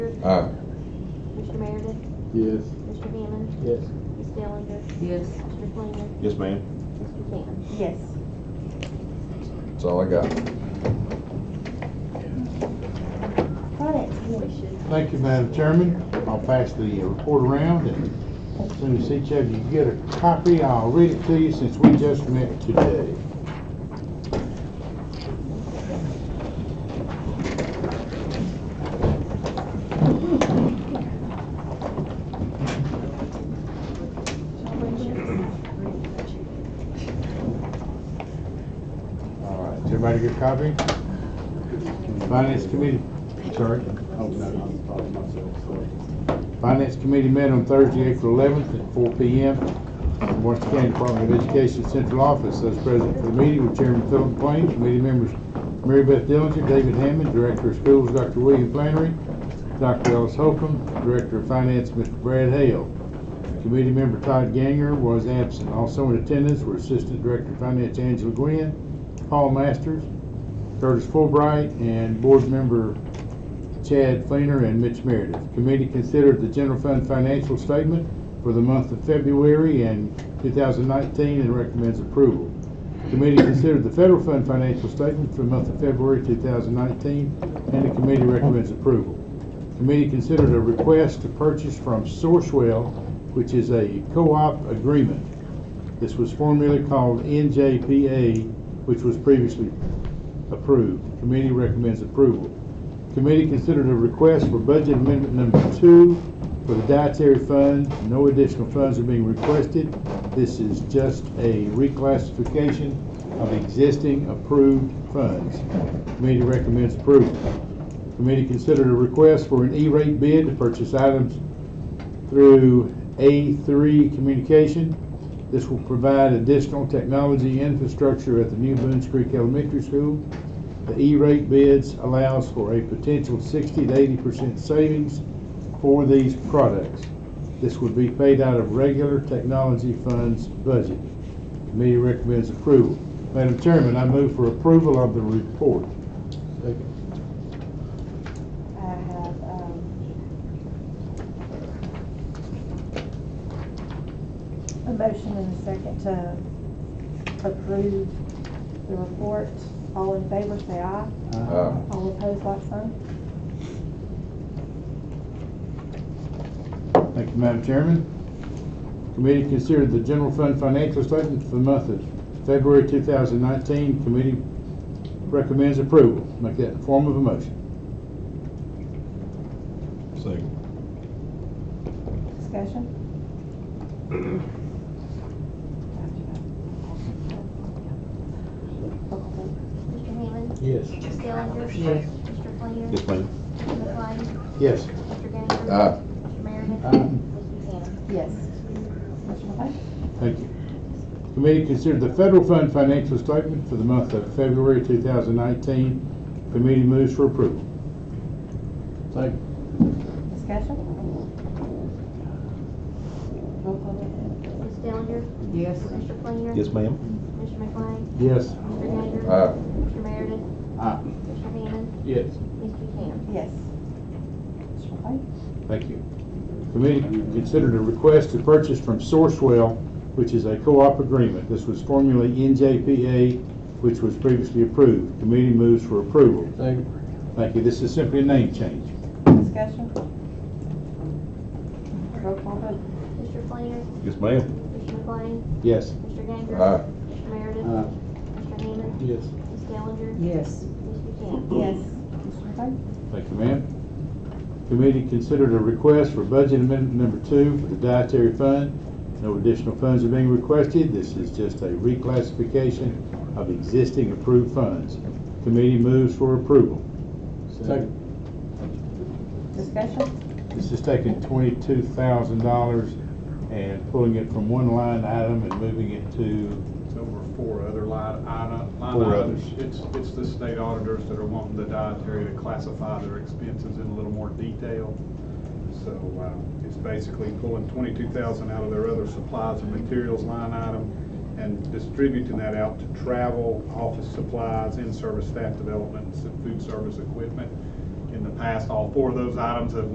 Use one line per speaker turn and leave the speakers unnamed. Aye.
Mr. Meredith,
Yes.
Mr. Hammond,
Yes.
Ms. Dellinger,
Yes.
Mr. Fleener,
Yes, ma'am.
Mr. Cannon.
Yes.
That's all I got.
Thank you, Madam Chairman. I'll pass the report around and as soon as each of you get a copy, I'll read it to you since we just met today. All right, Does everybody get a copy? Finance Committee, I'm sorry.
Oh, no, I'm talking to myself, sorry.
Finance Committee met on Thursday, April 11th at 4 PM in Washington County Department of Education Central Office. Those present for the meeting were Chairman Philip Plain, committee members Mary Beth Dillinger, David Hammond, Director of Schools, Dr. William Flannery, Dr. Ellis Holcomb, Director of Finance, Mr. Brad Hale. Committee member Todd Ganger was absent. Also in attendance were Assistant Director of Finance Angela Gwynn, Paul Masters, Curtis Fulbright, and Board Member Chad Fleener and Mitch Meredith. Committee considered the general fund financial statement for the month of February and 2019 and recommends approval. Committee considered the federal fund financial statement for the month of February 2019 and the committee recommends approval. Committee considered a request to purchase from Sourcewell, which is a co-op agreement. This was formerly called NJPA, which was previously approved. Committee recommends approval. Committee considered a request for budget amendment number two for the dietary fund. No additional funds are being requested. This is just a reclassification of existing approved funds. Committee recommends approval. Committee considered a request for an E-rate bid to purchase items through A3 Communication. This will provide additional technology infrastructure at the new Boones Creek Elementary School. The E-rate bids allows for a potential 60 to 80% savings for these products. This would be paid out of regular technology funds budget. Committee recommends approval. Madam Chairman, I move for approval of the report.
I have, um. A motion and a second to approve the report. All in favor, say aye.
Aye.
All opposed, like sign.
Thank you, Madam Chairman. Committee considered the general fund financial statement for the month of February 2019. Committee recommends approval. Make that in the form of a motion.
Second.
Discussion?
Mr. Hammond,
Yes.
Ms. Dellinger.
Yes.
Mr. Fleener,
Yes, ma'am.
Mr. McLean,
Yes.
Mr. Ganger.
Aye.
Mr. Meredith.
Aye.
Mr. Cannon.
Yes. Mr. McLean?
Thank you. Committee considered the federal fund financial statement for the month of February 2019. Committee moves for approval. Second.
Discussion? Roll call.
Ms. Dellinger,
Yes.
Mr. Fleener.
Yes, ma'am.
Mr. McLean,
Yes.
Mr. Ganger.
Aye.
Mr. Meredith.
Aye.
Mr. Hammond,
Ah, Yes.
Mr. Cannon.
Yes. Mr. McLean?
Thank you. Committee considered a request to purchase from Sourcewell, which is a co-op agreement. This was formerly NJPA, which was previously approved. Committee moves for approval. Thank you. This is simply a name change.
Discussion? Roll call vote.
Mr. Fleener,
Yes, ma'am.
Mr. McLean,
Yes.
Mr. Ganger.
Aye.
Mr. Meredith.
Aye.
Mr. Hammond,
Uh, Yes.
Ms. Dellinger.
Yes.
Mr. Cannon.
Yes. Mr. McLean?
Thank you, ma'am. Committee considered a request for budget amendment number two for the dietary fund. No additional funds are being requested. This is just a reclassification of existing approved funds. Committee moves for approval.
Second.
Discussion?
This is taking twenty-two thousand dollars and pulling it from one line item and moving it to,
It's over four other line, item- line
Four
items. It's, it's the state auditors that are wanting the dietary to classify their expenses in a little more detail. So, uh, it's basically pulling twenty-two thousand out of their other supplies and materials line item and distributing that out to travel, office supplies, in-service staff development, and some food service equipment. In the past, all four of those items have